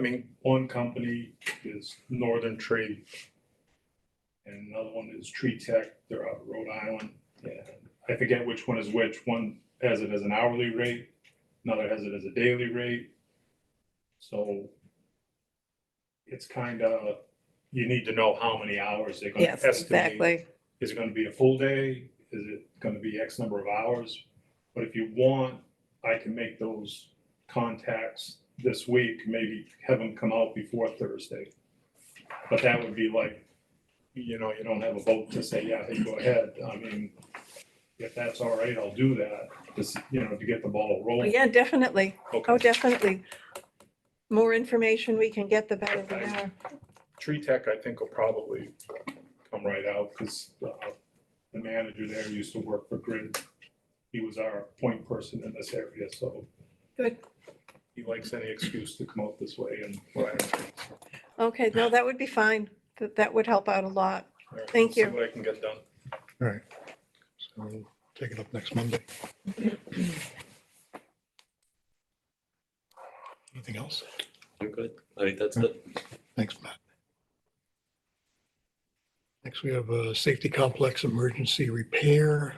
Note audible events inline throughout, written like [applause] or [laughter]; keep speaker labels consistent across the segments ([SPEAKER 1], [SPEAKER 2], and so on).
[SPEAKER 1] mean, one company is Northern Trade. And another one is Tree Tech, they're out of Rhode Island, and I forget which one is which, one has it as an hourly rate, another has it as a daily rate. So. It's kinda, you need to know how many hours they're gonna
[SPEAKER 2] Yes,
[SPEAKER 1] estimate
[SPEAKER 2] exactly.
[SPEAKER 1] is it gonna be a full day? Is it gonna be X number of hours? But if you want, I can make those contacts this week, maybe have them come out before Thursday. But that would be like, you know, you don't have a vote to say, yeah, hey, go ahead. I mean, if that's all right, I'll do that, just, you know, to get the ball
[SPEAKER 2] Well,
[SPEAKER 1] rolling.
[SPEAKER 2] Yeah, definitely.
[SPEAKER 1] Okay.
[SPEAKER 2] Oh, definitely. More information we can get, the better we are.
[SPEAKER 1] Tree Tech, I think, will probably come right out, because the manager there used to work for Grid. He was our point person in this area, so.
[SPEAKER 2] Good.
[SPEAKER 1] He likes any excuse to come out this way and. Thank
[SPEAKER 2] Okay, no, that would be fine. That, that would help out a lot. Thank
[SPEAKER 1] See
[SPEAKER 2] you.
[SPEAKER 1] what I can get done.
[SPEAKER 3] All right. So we'll take it up next Monday. Anything else?
[SPEAKER 4] I'm good. I think that's it.
[SPEAKER 3] Thanks, Matt. Next, we have a safety complex emergency repair.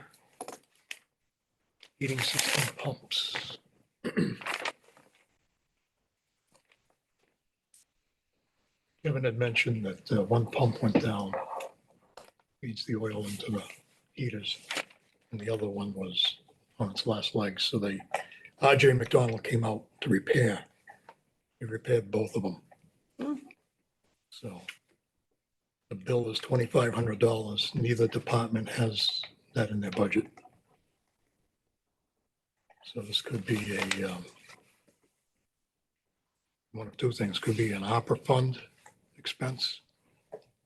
[SPEAKER 3] Heating system pumps. [clears throat] Kevin had mentioned that uh, one pump went down. Feeds the oil into the heaters. And the other one was on its last legs, so they, RJ McDonald came out to repair. He repaired both of them. So the bill is twenty-five hundred dollars. Neither department has that in their budget. So this could be a um, one of two things. Could be an opera fund expense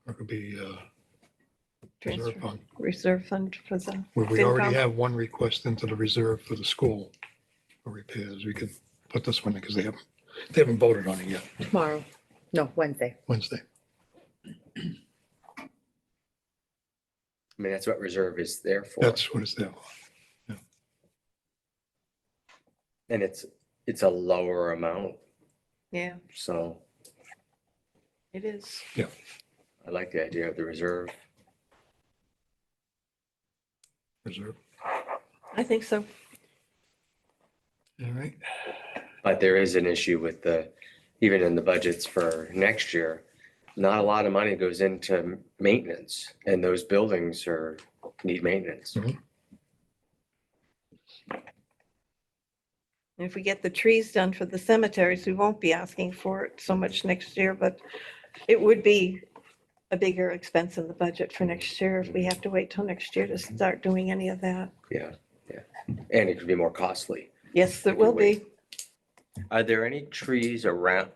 [SPEAKER 3] or it could be a reserve
[SPEAKER 2] Transfer-
[SPEAKER 3] fund.
[SPEAKER 2] Reserve fund for the,
[SPEAKER 3] Where we already
[SPEAKER 2] FinCom.
[SPEAKER 3] have one request into the reserve for the school for repairs. We could put this one in because they haven't, they haven't voted on it yet.
[SPEAKER 5] Tomorrow, no, Wednesday.
[SPEAKER 3] Wednesday.
[SPEAKER 4] I mean, that's what reserve is there for.
[SPEAKER 3] That's what it's there for.
[SPEAKER 4] And it's, it's a lower amount,
[SPEAKER 2] yeah,
[SPEAKER 4] so
[SPEAKER 2] it is.
[SPEAKER 4] I like the idea of the reserve.
[SPEAKER 3] Reserve.
[SPEAKER 2] I think so.
[SPEAKER 3] All right.
[SPEAKER 4] But there is an issue with the, even in the budgets for next year, not a lot of money goes into maintenance and those buildings are, need maintenance.
[SPEAKER 2] And If we get the trees done for the cemeteries, we won't be asking for it so much next year, but it would be a bigger expense in the budget for next year if we have to wait till next year to start doing any of that.
[SPEAKER 4] Yeah, yeah. And it could be more costly.
[SPEAKER 2] Yes, it will be.
[SPEAKER 4] Are there any trees around,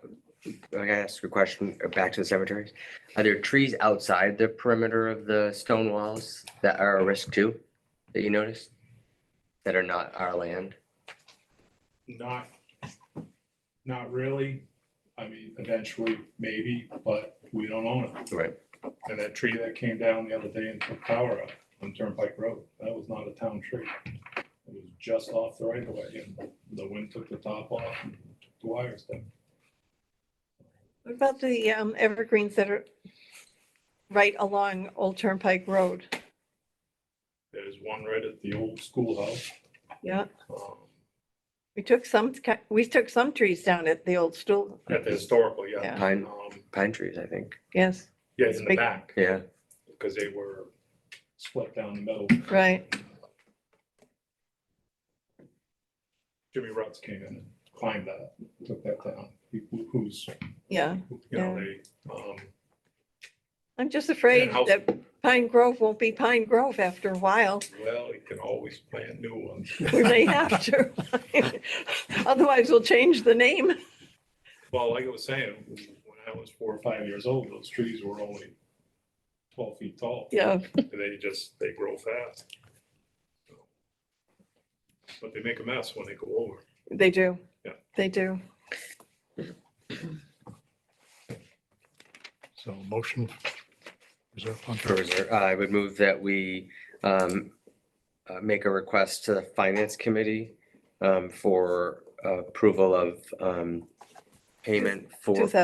[SPEAKER 4] I gotta ask a question, uh, back to the cemeteries. Are there trees outside the perimeter of the stone walls that are a risk too, that you noticed? That are not our land?
[SPEAKER 1] Not, not really. I mean, eventually, maybe, but we don't own it.
[SPEAKER 4] Right.
[SPEAKER 1] And that tree that came down the other day and took power out on Turnpike Road, that was not a town tree. It was just off the right of way and the wind took the top off and took the wires down.
[SPEAKER 2] What about the um, evergreens that are right along Old Turnpike Road?
[SPEAKER 1] There's one right at the old schoolhouse.
[SPEAKER 2] Yeah,
[SPEAKER 1] um,
[SPEAKER 2] we took some, ki- we took some trees down at the old stool.
[SPEAKER 1] At the historical, yeah.
[SPEAKER 2] Yeah.
[SPEAKER 4] Pine,
[SPEAKER 1] Um,
[SPEAKER 4] pine trees, I think.
[SPEAKER 2] Yes,
[SPEAKER 1] Yeah, in the
[SPEAKER 2] Big-
[SPEAKER 1] back,
[SPEAKER 4] Yeah,
[SPEAKER 1] because they were split down the middle.
[SPEAKER 2] right.
[SPEAKER 1] Jimmy Rutz came in and climbed that, took that down. He- who- Who's,
[SPEAKER 2] Yeah,
[SPEAKER 1] you know, they, um,
[SPEAKER 2] I'm just afraid
[SPEAKER 1] how-
[SPEAKER 2] that Pine Grove won't be Pine Grove after a while.
[SPEAKER 1] well, you can always plant new ones. [laughs]
[SPEAKER 2] We may have to. [laughs] Otherwise, we'll change the name.
[SPEAKER 1] Well, like I was saying, when I was four or five years old, those trees were only twelve feet tall.
[SPEAKER 2] Yeah,
[SPEAKER 1] And they just, they grow fast. But they make a mess when they go over.
[SPEAKER 2] they do.
[SPEAKER 1] Yeah.
[SPEAKER 2] They do.
[SPEAKER 3] So motion. Reserve fund.
[SPEAKER 4] for reserve. Uh, I would move that we um, uh, make a request to the finance committee um, for approval of um,
[SPEAKER 6] payment for
[SPEAKER 4] Two thousand